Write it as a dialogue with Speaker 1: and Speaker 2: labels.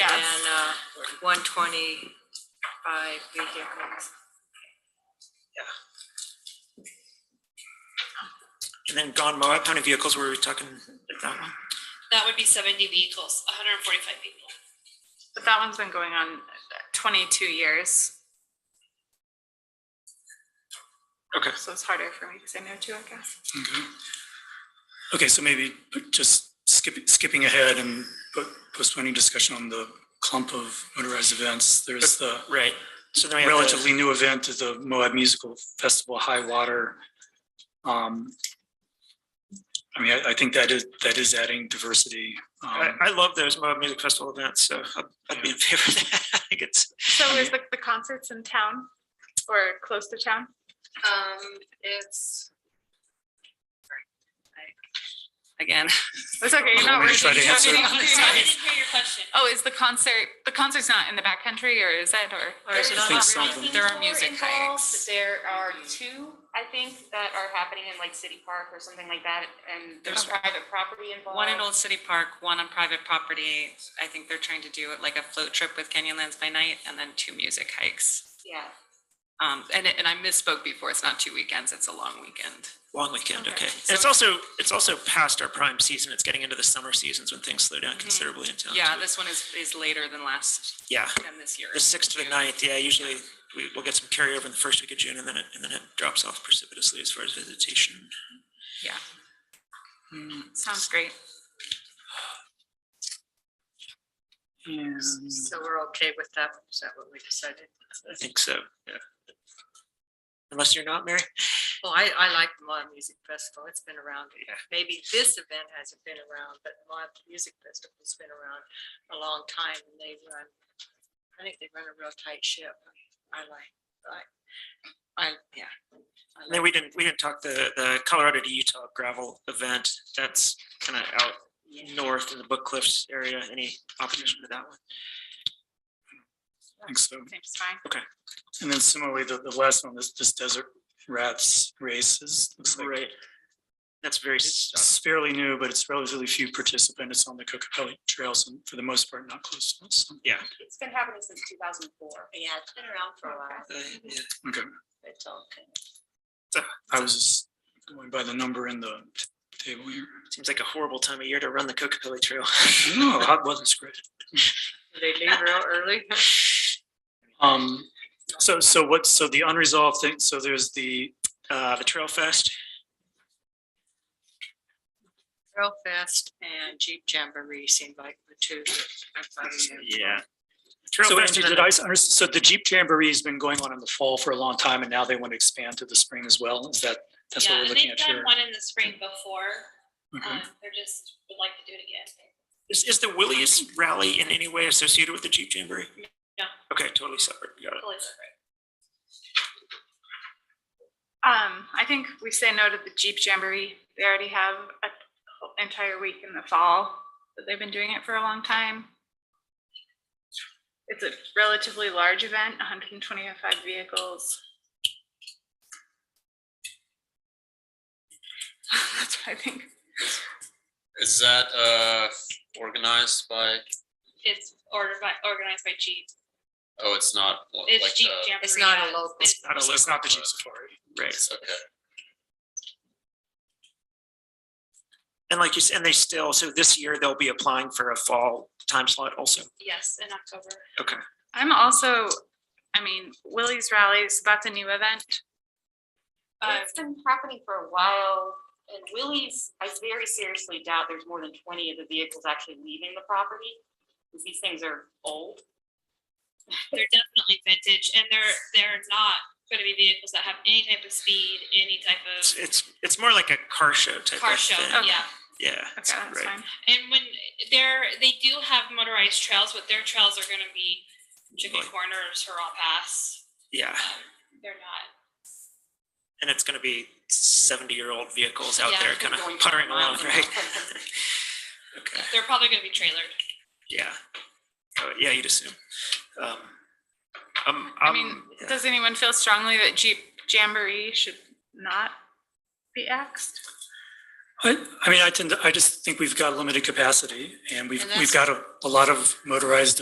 Speaker 1: uh,
Speaker 2: one twenty-five vehicles.
Speaker 3: And then Don Moab, how many vehicles were we talking at that one?
Speaker 4: That would be seventy vehicles, hundred and forty-five people.
Speaker 5: But that one's been going on twenty-two years,
Speaker 3: Okay,
Speaker 5: so it's harder for me to say no to, I guess.
Speaker 6: Okay. Mm-hmm. Okay, so maybe just skipping, skipping ahead and po- postponing discussion on the clump of motorized events. There's the
Speaker 3: right. So then we have the-
Speaker 6: relatively new event is the Moab Musical Festival High Water. Um, I mean, I, I think that is, that is adding diversity.
Speaker 3: I,
Speaker 6: Um,
Speaker 3: I love those Moab Music Festival events, so I'd- I'd be in favor of that. I think it's,
Speaker 5: So is the, the concerts in town or close to town?
Speaker 7: Um, it's. sorry, I- Again,
Speaker 5: It's okay, you're not
Speaker 6: I'm gonna
Speaker 5: working.
Speaker 6: try to
Speaker 5: you're not
Speaker 6: answer.
Speaker 5: getting-
Speaker 4: I didn't hear your question.
Speaker 5: Oh, is the concert, the concert's not in the backcountry or is it, or?
Speaker 2: Or is it
Speaker 6: I
Speaker 2: on-
Speaker 6: think something.
Speaker 5: There are music hikes.
Speaker 7: there are two, I think, that are happening in like City Park or something like that, and there's private property involved.
Speaker 1: One in Old City Park, one on private property. I think they're trying to do it like a float trip with Canyonlands by night and then two music hikes.
Speaker 7: Yeah,
Speaker 1: Um, and, it- and I misspoke before. It's not two weekends. It's a long weekend.
Speaker 3: long weekend, okay.
Speaker 5: Okay,
Speaker 3: And it's also, it's also past our prime season. It's getting into the summer seasons when things slow down considerably in town.
Speaker 1: Yeah,
Speaker 3: too.
Speaker 1: this one is, is later than last,
Speaker 3: Yeah,
Speaker 1: than this year.
Speaker 3: the sixth to the
Speaker 1: June.
Speaker 3: ninth, yeah, usually we, we'll get some carryover in the first week of June and then it, and then it drops off precipitously as far as visitation.
Speaker 5: Sounds great.
Speaker 7: so we're okay with that, is that what we decided?
Speaker 3: I think so, yeah. Unless you're not, Mary?
Speaker 8: Well, I, I like the Moab Music Festival. It's been around. Maybe this event hasn't been around, but the Moab Music Festival's been around a long time and they run, I think they run a real tight ship. I like, I, I, yeah. I
Speaker 3: And then
Speaker 8: like-
Speaker 3: we didn't, we didn't talk the, the Colorado to Utah gravel event. That's kind of out north in the Book Cliffs area. Any opposition to that one?
Speaker 6: I think so.
Speaker 5: Seems fine.
Speaker 6: And then similarly, the, the last one, this, this desert rats races, looks like
Speaker 3: Right. That's very, s-
Speaker 6: it's fairly new, but it's relatively few participants. It's on the Cocopelli Trails and for the most part, not close to us.
Speaker 3: yeah.
Speaker 7: It's been happening since two thousand four.
Speaker 8: Yeah, it's been around for a while.
Speaker 3: uh, yeah.
Speaker 6: Okay,
Speaker 8: It's okay.
Speaker 6: I was just going by the number in the table here.
Speaker 3: Seems like a horrible time of year to run the Cocopelli Trail.
Speaker 6: No, that wasn't scripted.
Speaker 8: They leave real early.
Speaker 6: Um, so, so what, so the unresolved thing, so there's the,
Speaker 3: Uh, the Trail Fest,
Speaker 8: Trail Fest and Jeep Jamboree seem like the two. that I'm finding them.
Speaker 3: yeah. Trail
Speaker 6: so
Speaker 3: Fest
Speaker 6: Andrew,
Speaker 3: and then
Speaker 6: did I, s- under- so the Jeep Jamboree has been going on in the fall for a long time and now they want to expand to the spring as well? Is that, that's what
Speaker 4: Yeah,
Speaker 6: we're
Speaker 4: and
Speaker 6: looking
Speaker 4: they've
Speaker 6: at
Speaker 4: done
Speaker 6: here?
Speaker 4: one in the spring before,
Speaker 6: Okay.
Speaker 4: um, they're just, would like to do it again.
Speaker 3: Is, is the Willie's rally in any way associated with the Jeep Jamboree?
Speaker 4: No.
Speaker 3: Okay, totally separate. Got it.
Speaker 4: Totally separate.
Speaker 5: Um, I think we say no to the Jeep Jamboree. They already have a whole entire week in the fall, but they've been doing it for a long time. It's a relatively large event, hundred and twenty-five vehicles. That's what I think.
Speaker 9: Is that uh organized by,
Speaker 4: It's ordered by, organized by Jeep.
Speaker 9: oh, it's not like
Speaker 4: It's Jeep
Speaker 9: the,
Speaker 4: Jamboree.
Speaker 8: It's not a
Speaker 4: yeah.
Speaker 8: local.
Speaker 4: It's-
Speaker 3: Not a
Speaker 6: So It's
Speaker 3: local,
Speaker 6: not the Jeep
Speaker 3: but-
Speaker 6: Safari.
Speaker 3: Right.
Speaker 9: okay.
Speaker 3: And like you said, and they still, so this year they'll be applying for a fall time slot also.
Speaker 4: Yes, in October.
Speaker 5: I'm also, I mean, Willie's Rallies, that's a new event.
Speaker 4: Uh,
Speaker 7: It's been happening for a while, and Willie's, I very seriously doubt there's more than twenty of the vehicles actually leaving the property, because these things are old.
Speaker 4: they're definitely vintage and they're, they're not gonna be vehicles that have any type of speed, any type
Speaker 3: It's,
Speaker 4: of
Speaker 3: it's, it's more like a car show type of
Speaker 4: car show,
Speaker 3: thing.
Speaker 5: Okay.
Speaker 4: yeah.
Speaker 3: Yeah.
Speaker 5: Okay, that's
Speaker 3: right.
Speaker 5: fine.
Speaker 4: And when they're, they do have motorized trails, but their trails are gonna be chicken
Speaker 3: Like-
Speaker 4: corners, Hurrah Pass.
Speaker 3: Yeah,
Speaker 4: They're not
Speaker 3: and it's gonna be seventy-year-old vehicles out
Speaker 4: Yeah,
Speaker 3: there
Speaker 4: it's
Speaker 3: kind of
Speaker 7: going
Speaker 3: puttering
Speaker 7: miles
Speaker 3: around,
Speaker 7: an
Speaker 3: right?
Speaker 7: hour.
Speaker 3: Okay,
Speaker 4: They're probably gonna be trailered.
Speaker 3: yeah. Oh, Yeah, you'd assume. Um, um,
Speaker 5: I
Speaker 3: um,
Speaker 5: mean,
Speaker 3: yeah.
Speaker 5: does anyone feel strongly that Jeep Jamboree should not be axed?
Speaker 6: I, I mean, I tend to, I just think we've got limited capacity and we've,
Speaker 8: And
Speaker 6: we've got
Speaker 8: that's-
Speaker 6: a, a lot of motorized